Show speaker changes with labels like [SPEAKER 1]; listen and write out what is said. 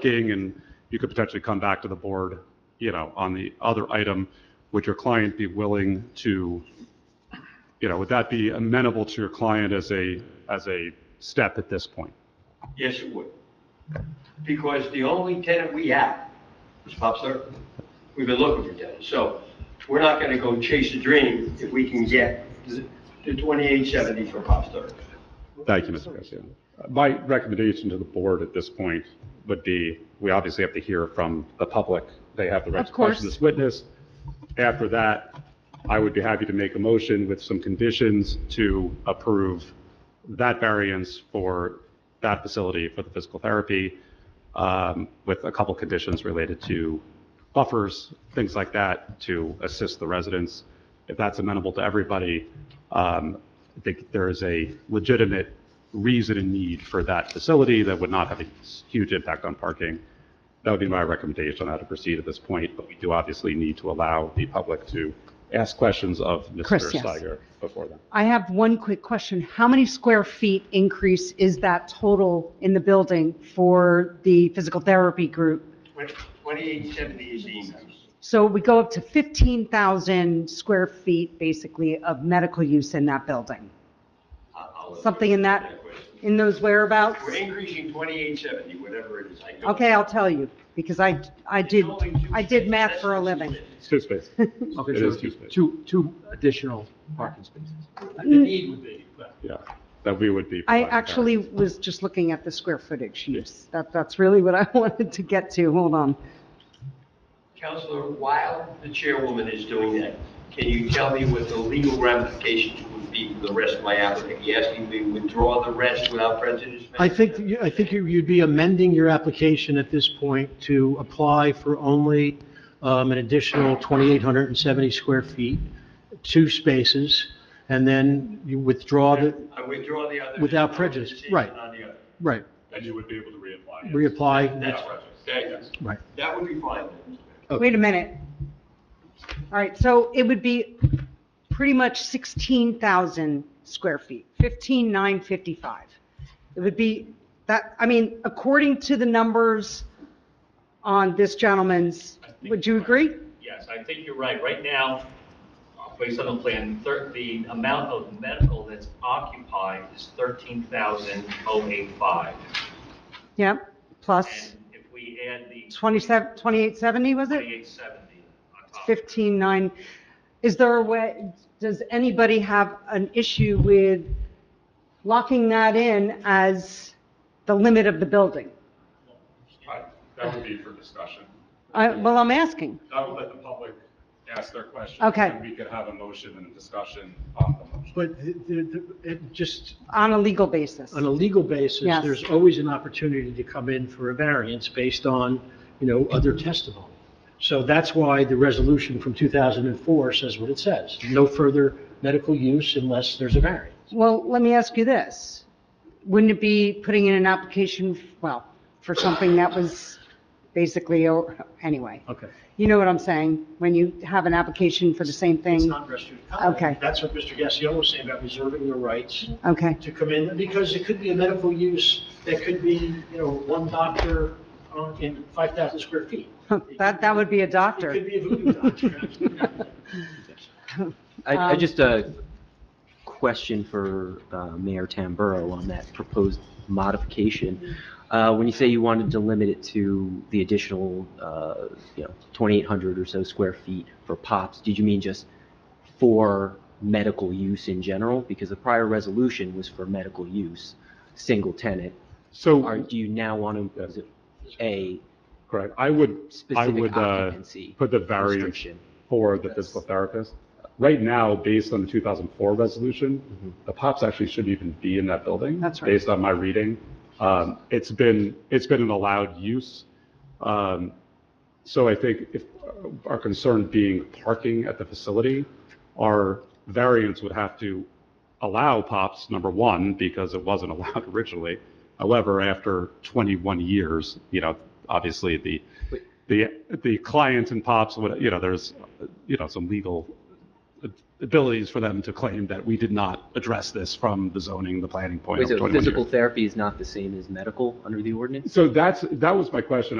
[SPEAKER 1] king, and you could potentially come back to the board, you know, on the other item. Would your client be willing to, you know, would that be amenable to your client as a, as a step at this point?
[SPEAKER 2] Yes, it would. Because the only tenant we have is Pop Star. We've been looking for tenants, so we're not gonna go chase a dream if we can get the twenty-eight seventy for Pop Star.
[SPEAKER 1] Thank you, Mr. President. My recommendation to the board at this point would be, we obviously have to hear from the public. They have the right to question
[SPEAKER 3] course.
[SPEAKER 1] this witness. After that, I would be happy to make a motion with some conditions to approve that variance for that facility for the physical therapy, um, with a couple conditions related to buffers, things like that, to assist the residents. If that's amenable to everybody, um, I think there is a legitimate reason and need for that facility that would not have a huge impact on parking. That would be my recommendation on how to proceed at this point, but we do obviously need to allow the public to ask questions of Mr.
[SPEAKER 3] Chris, yes.
[SPEAKER 1] Steiger before then.
[SPEAKER 3] I have one quick question. How many square feet increase is that total in the building for the physical therapy group?
[SPEAKER 2] Twenty-eight seventy is the increase.
[SPEAKER 3] So we go up to 15,000 square feet, basically, of medical use in that building,
[SPEAKER 2] I'll- I'll let
[SPEAKER 3] Something
[SPEAKER 2] you
[SPEAKER 3] in
[SPEAKER 2] answer
[SPEAKER 3] that-
[SPEAKER 2] question.
[SPEAKER 3] in those whereabouts?
[SPEAKER 2] We're increasing twenty-eight seventy, whatever it is. I don't-
[SPEAKER 3] Okay, I'll tell you, because I, I
[SPEAKER 2] It's
[SPEAKER 3] did,
[SPEAKER 2] only two
[SPEAKER 3] I did
[SPEAKER 2] spaces.
[SPEAKER 3] math
[SPEAKER 2] That's
[SPEAKER 3] for a
[SPEAKER 2] two
[SPEAKER 3] living.
[SPEAKER 2] spaces.
[SPEAKER 1] It's two spaces.
[SPEAKER 4] Okay,
[SPEAKER 1] It
[SPEAKER 4] so
[SPEAKER 1] is
[SPEAKER 4] it'd be
[SPEAKER 1] two spaces.
[SPEAKER 4] two, two additional parking spaces.
[SPEAKER 2] The need would be, but
[SPEAKER 1] Yeah, that we would be.
[SPEAKER 3] I
[SPEAKER 1] providing
[SPEAKER 3] actually
[SPEAKER 1] variance.
[SPEAKER 3] was just looking at the square footage use. That, that's really what I wanted to get to. Hold on.
[SPEAKER 2] Counselor, while the chairwoman is doing that, can you tell me what the legal ramifications would be for the rest of my applicant? You asking me to withdraw the rest without prejudice?
[SPEAKER 5] I think, you- I think you- you'd be amending your application at this point to apply for only um, an additional 2,870 square feet, two spaces, and then you withdraw the,
[SPEAKER 2] I withdraw the other.
[SPEAKER 5] Without prejudice,
[SPEAKER 2] decision
[SPEAKER 5] right.
[SPEAKER 2] on the other.
[SPEAKER 5] right,
[SPEAKER 1] And you would be able to reapply. yes.
[SPEAKER 5] reapply,
[SPEAKER 2] That's right. That-
[SPEAKER 5] right.
[SPEAKER 2] That would be fine. then.
[SPEAKER 3] Wait a minute. All right, so it would be pretty much 16,000 square feet, 15,955. It would be that, I mean, according to the numbers on this gentleman's, would you agree?
[SPEAKER 6] Yes, I think you're right. Right now, uh, based on the plan, thir- the amount of medical that's occupied is 13,085.
[SPEAKER 3] Yep,
[SPEAKER 6] And
[SPEAKER 3] plus
[SPEAKER 6] if we add the
[SPEAKER 3] 27, 2870, was it?
[SPEAKER 6] 2870 on top.
[SPEAKER 3] 15,9. Is there a way, does anybody have an issue with locking that in as the limit of the building?
[SPEAKER 1] I- That would be for discussion.
[SPEAKER 3] I, well, I'm asking.
[SPEAKER 1] I would let the public ask their questions.
[SPEAKER 3] Okay.
[SPEAKER 1] And we could have a motion and a discussion on the motion.
[SPEAKER 5] But the- the- the- it just,
[SPEAKER 3] On a legal basis.
[SPEAKER 5] on a legal basis,
[SPEAKER 3] Yes.
[SPEAKER 5] there's always an opportunity to come in for a variance based on, you know, other testimony. So that's why the resolution from 2004 says what it says, no further medical use unless there's a variance.
[SPEAKER 3] Well, let me ask you this. Wouldn't it be putting in an application, well, for something that was basically, or, anyway,
[SPEAKER 5] Okay.
[SPEAKER 3] you know what I'm saying? When you have an application for the same
[SPEAKER 5] It's
[SPEAKER 3] thing?
[SPEAKER 5] not restricted conduct.
[SPEAKER 3] Okay.
[SPEAKER 5] That's what Mr. Gassion was saying about reserving your rights
[SPEAKER 3] Okay,
[SPEAKER 5] to come in, because it could be a medical use, that could be, you know, one doctor on- in 5,000 square feet.
[SPEAKER 3] that, that would be a
[SPEAKER 5] It could
[SPEAKER 3] doctor.
[SPEAKER 5] be a voodoo doctor.
[SPEAKER 7] I, I
[SPEAKER 3] Um,
[SPEAKER 7] just a question for uh, Mayor Tamburo on that proposed modification. Uh, When you say you wanted to limit it to the additional, uh, you know, 2,800 or so square feet for POPs, did you mean just for medical use in general? Because the prior resolution was for medical use, single tenant. Or
[SPEAKER 1] So,
[SPEAKER 7] do you now want to impose a
[SPEAKER 1] correct, I would, I
[SPEAKER 7] specific
[SPEAKER 1] would uh,
[SPEAKER 7] occupancy
[SPEAKER 1] put the variance
[SPEAKER 7] restriction?
[SPEAKER 1] for the physical therapist. Right now, based on the 2004
[SPEAKER 7] Mm-hmm.
[SPEAKER 1] resolution, the POPs actually shouldn't even be in that building.
[SPEAKER 3] That's right.
[SPEAKER 1] Based on my reading. Um, It's been, it's been an allowed use. Um, So I think if, uh, our concern being parking at the facility, our variance would have to allow POPs, number one, because it wasn't allowed originally. However, after 21 years, you know, obviously the, the, the clients and POPs would, you know, there's, you know, some legal abilities for them to claim that we did not address this from the zoning, the planning point
[SPEAKER 7] Wait,
[SPEAKER 1] of
[SPEAKER 7] so
[SPEAKER 1] 21 years.
[SPEAKER 7] physical therapy is not the same as medical under the ordinance?
[SPEAKER 1] So that's, that was my question.